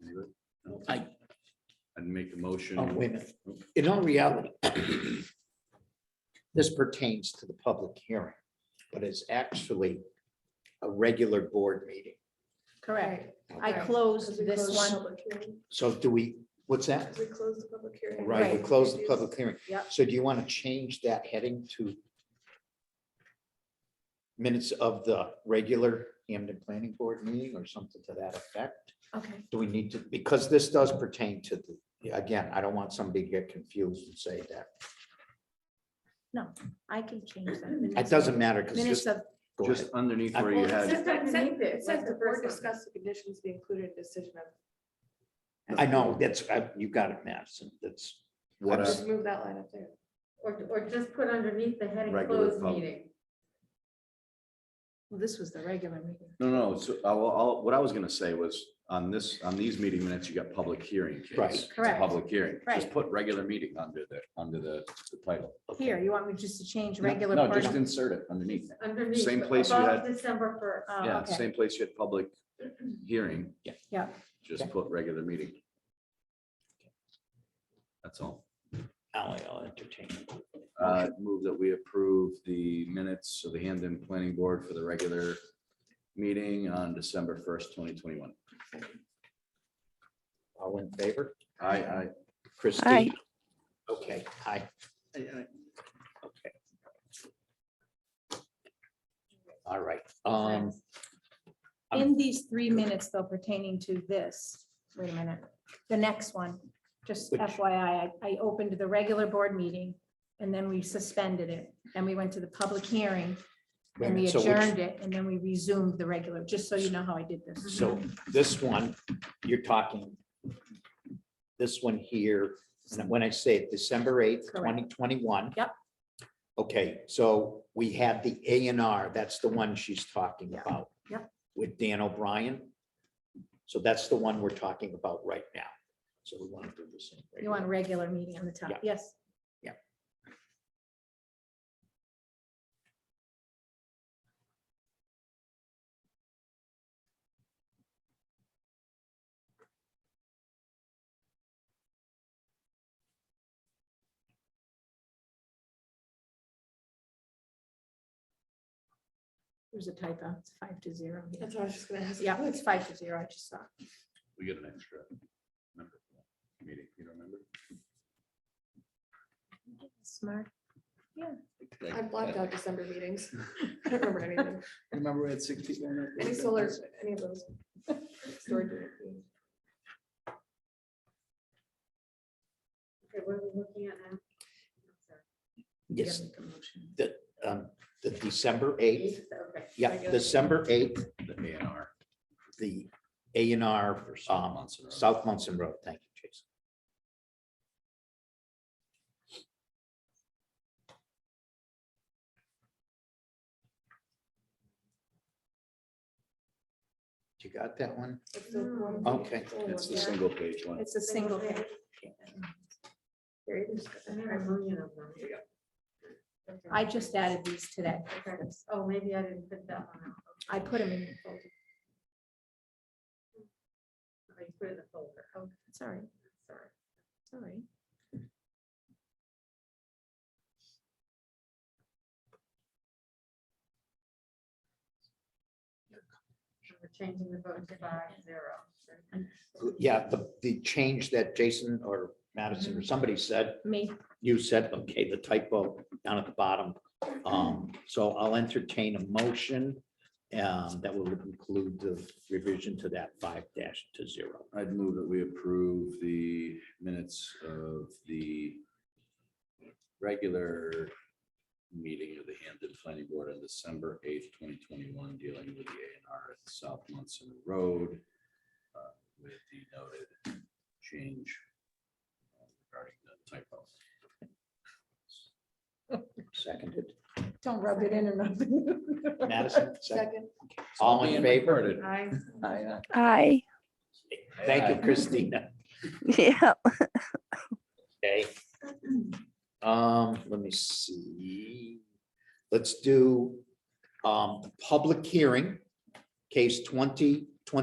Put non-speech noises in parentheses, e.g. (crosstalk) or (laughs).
No? I, I'd make a motion. oh, wait a minute. In all reality, this pertains to the public hearing, but it's actually a regular board meeting. Correct. I Right. closed this one. So do we, what's that? We closed the public hearing. Right, we Right. close the public hearing. Yep. So do you want to change that heading to minutes of the regular Hamden Planning Board meeting or something to that effect? Okay, Do we need to, because this does pertain to the, again, I don't want somebody to get confused and say that. I can change that. It doesn't matter because Minutes just. of, go ahead. Just underneath I- where you well, it had, says underneath it, it says Like the the board first one. discussed the conditions be included in decision of. I know, that's, I- you got it, Madison, that's. What I'm I- s- Just move that line up there. Or, or just put underneath the heading Regular closed pub- meeting. Well, this was the regular meeting. no, no, so I, will- I'll- what I was gonna say was on this, on these meeting minutes, you got public hearing. kids. Right. It's a Correct. Public hearing. Just Right. put regular meeting under the, under the the title. here, you want me just to change regular? No, part just of- insert it underneath. Underneath. Same but place you above had- December first. Oh, Yeah, okay. same place you had public hearing. Yeah. Yeah. Just Okay. put regular meeting. That's all. Ally, I'll entertain. Uh, move that we approve the minutes of the Hamden Planning Board for the regular meeting on December first, twenty twenty-one. All in favor? I, I, Christie? Okay, aye. Okay. All right, um, In these three minutes though pertaining to this, wait a minute, the next one, just Which- FYI, I, I opened the regular board meeting and then we suspended it and we went to the public hearing wait a and we minute, so which- adjourned it and then we resumed the regular, just so you know how I did this. so this one, you're talking. This one here, and when I say it, December eighth, Correct. twenty twenty-one. Yep. Okay, so we had the A and R, that's the one she's talking Yeah. about. Yep. With Dan O'Brien. So that's the one we're talking about right now. So we want to do the same. You want a regular meeting on the Yeah. top, yes. There's a typo, it's five to zero. here. That's what I was just gonna ask. Yeah, it's five to zero, I just saw. we get an extra. member for that Meeting, you don't remember? Smart. I blacked out December meetings. I don't remember any of them. Remember at sixty? Any solar, any of those. Storage unit. Okay, what are we looking at now? Yes, Make a motion. um, the December eighth, Okay. yeah, Regular. December eighth, The A and R. the A and R for Tom um, Monson. South Munson Road. Thank you, Jason. You got that one? It's Oh. the one- Okay. only one. It's the single page one. It's a single page. Here, you can just put I that had a there. million of them. Okay. I just added these today. Okay. Oh, maybe I didn't put that one out. I put them in the folder. I put it in the folder. Oh, Sorry, sorry. sorry. We're changing the vote to five zero. Yeah, the, the change that Jason or Madison or somebody said, Me, you said, okay, the typo down at the bottom. Um, so I'll entertain a motion um, that will include the revision to that five dash to zero. I'd move that we approve the minutes of the regular meeting of the Hampton Planning Board on December eighth, twenty twenty-one, dealing with the A and R at South Munson Road uh, with the noted change uh, regarding the typo. Seconded. don't rub it in or nothing. (laughs) Madison, second. Second. All in favor? I, Aye. Aye. Thank you, Christina. Yeah. Okay. Um, let me see. Let's do, um, public hearing, case twenty